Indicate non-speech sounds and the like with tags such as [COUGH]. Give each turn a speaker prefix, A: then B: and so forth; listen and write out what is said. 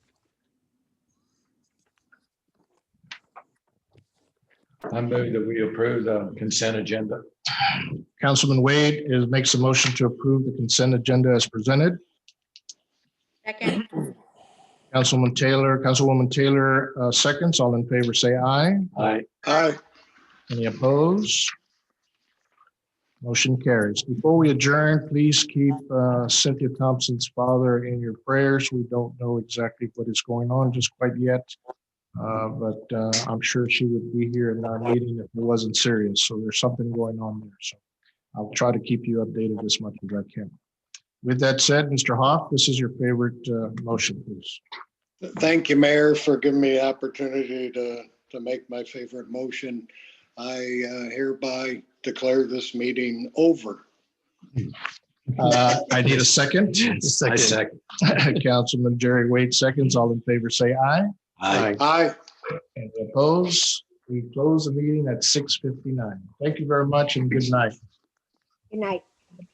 A: I move that we approve the consent agenda.
B: Councilman Wade is, makes a motion to approve the consent agenda as presented.
C: Second,
B: Councilman Taylor, Councilwoman Taylor, uh, seconds. All in favor, say aye.
A: Aye.
D: Aye.
B: Any opposed? Motion carries. Before we adjourn, please keep uh, Cynthia Thompson's father in your prayers. We don't know exactly what is going on just quite yet. uh, But uh, I'm sure she would be here in our meeting if it wasn't serious. So there's something going on there. So I'll try to keep you updated as much as I can. With that said, Mr. Hoff, this is your favorite uh, motion, please.
D: Thank you, Mayor, for giving me the opportunity to, to make my favorite motion. I uh, hereby declare this meeting over.
B: Uh, I need a second. [LAUGHS]
A: I second.
B: Councilman Jerry Wade seconds. All in favor, say aye.
A: Aye.
D: Aye.
B: And opposed, we close the meeting at six fifty-nine. Thank you very much and good night.
C: good night.